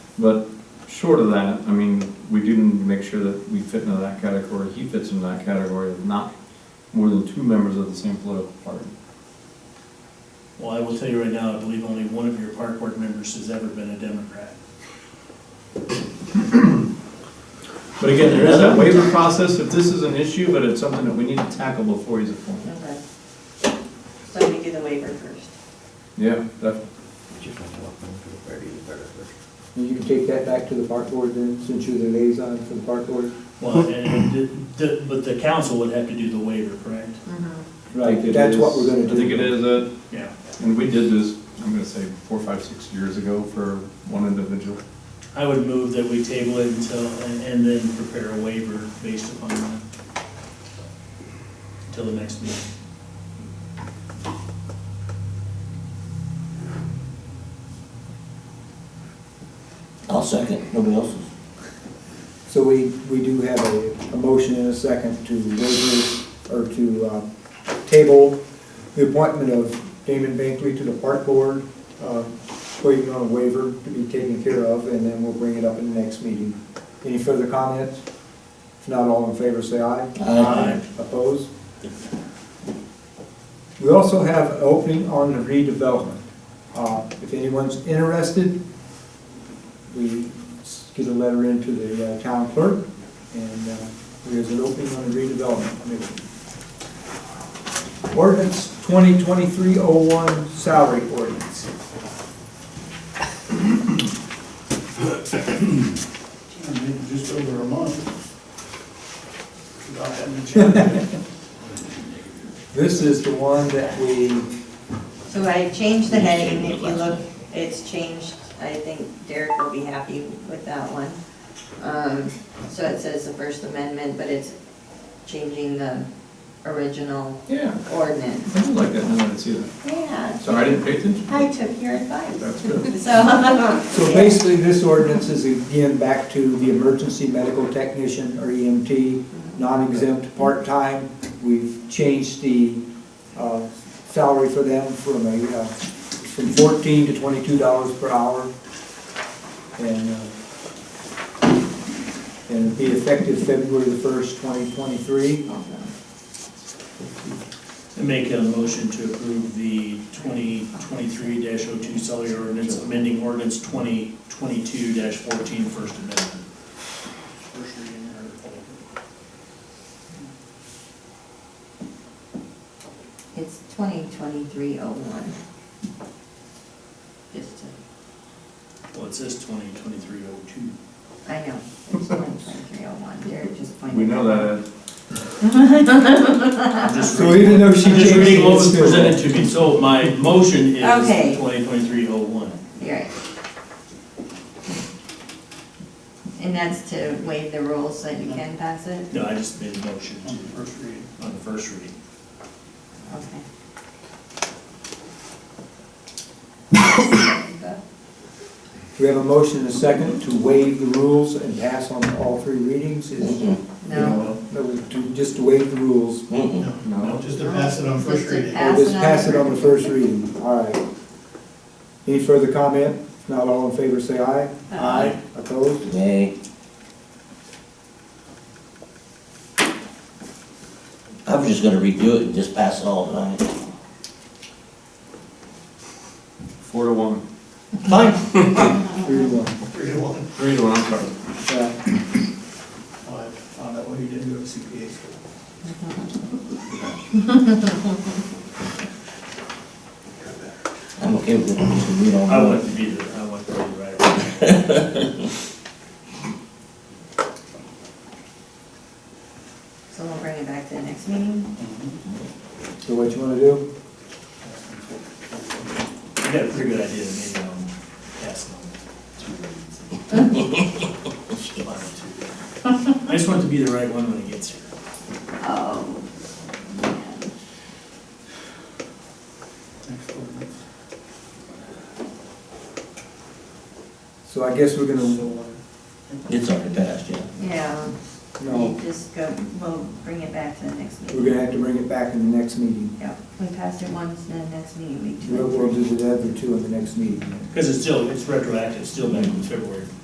But short of that, I mean, we do need to make sure that we fit into that category, he fits into that category of not more than two members of the same political party. Well, I will tell you right now, I believe only one of your park board members has ever been a Democrat. But again, there is that waiver process, if this is an issue, but it's something that we need to tackle before he's appointed. Okay. So we do the waiver first. Yeah, definitely. You can take that back to the park board then, since you're the liaison for the park board? Well, and, it- the- but the council would have to do the waiver, correct? Mm-hmm. I think it That's what is- we're gonna I think do. it is, uh, Yeah. and we did this, I'm gonna say, four, five, six years ago for one individual. I would move that we table it until, and, and then prepare a waiver based upon that. Till the next meeting. I'll second, nobody else's. So we, we do have a, a motion and a second to waive, or to, uh, table the appointment of Damon Bankley to the park board, uh, waiting on a waiver to be taken care of, and then we'll bring it up in the next meeting. Any further comments? If not, all in favor, say aye. Aye. Opposed? We also have an opening on the redevelopment. Uh, If anyone's interested, we s- get a letter into the uh, town clerk, and uh, there's an opening on the redevelopment committee. Ordinance 2023-01 salary ordinance. Just over a month. Without having to change it. This is the one that we, So I changed the heading, if you look, it's changed, I think Derek will be happy with that one. Um, so it says the First Amendment, but it's changing the original Yeah, ordinance. I did like that, now that I see that. Yeah, Sorry, I didn't pay attention. I took your advice, That's good. so. so basically, this ordinance is again back to the emergency medical technician or EMT, non-exempt, part-time. We've changed the uh, salary for them from a, uh, from fourteen to twenty-two dollars per hour. And, uh, and it'd be effective February the first, twenty twenty-three. And make a motion to approve the twenty twenty-three 2 salary ordinance, amending ordinance twenty twenty-two 14 fourteen, first amendment. First reading or- It's twenty twenty-three oh one. Just to, Well, it says twenty twenty-three oh two. I know, it's twenty twenty-three oh one, Derek just pointed. We know it out. that, I'm just So reading- even though she I'm just changed it, reading what it's was still- presented to me, so my motion Okay. is twenty twenty-three oh one. You're right. And that's to waive the rules so that you can pass it? No, I just made a motion On the first reading. to- on the first reading. Okay. We have a motion and a second to waive the rules and pass on all three readings. Is- Mm-mm, No, No, to- Just to waive the rules. mm-mm. no. Just to pass it on first Just to reading. Or just pass it on the first reading, all right. Any further comment? If not, all in favor, say aye. Aye. Opposed? Nay. I was just gonna redo it and just pass it all tonight. Four to one. Fine. Three to one. Three to one. Three to one, I'm sorry. Yeah. Oh, I found out why you didn't go to CPA school. I'm okay with it, just read all. I want to be the, I want to be the right. so we'll bring it back to the next meeting? So what you wanna do? I got a pretty good idea, maybe I'll pass it on two readings. Final two. I just want it to be the right one when it gets here. Oh. Next ordinance. So I guess we're gonna, So, It's already passed, yeah. Yeah, no, you just go, we'll bring it back to the next meeting. we're gonna have to bring it back in the next meeting. Yeah, we passed it once, then next meeting, we do We'll, it. we'll do the other two in the next meeting. Because it's still, it's retroactive, it's still back in February.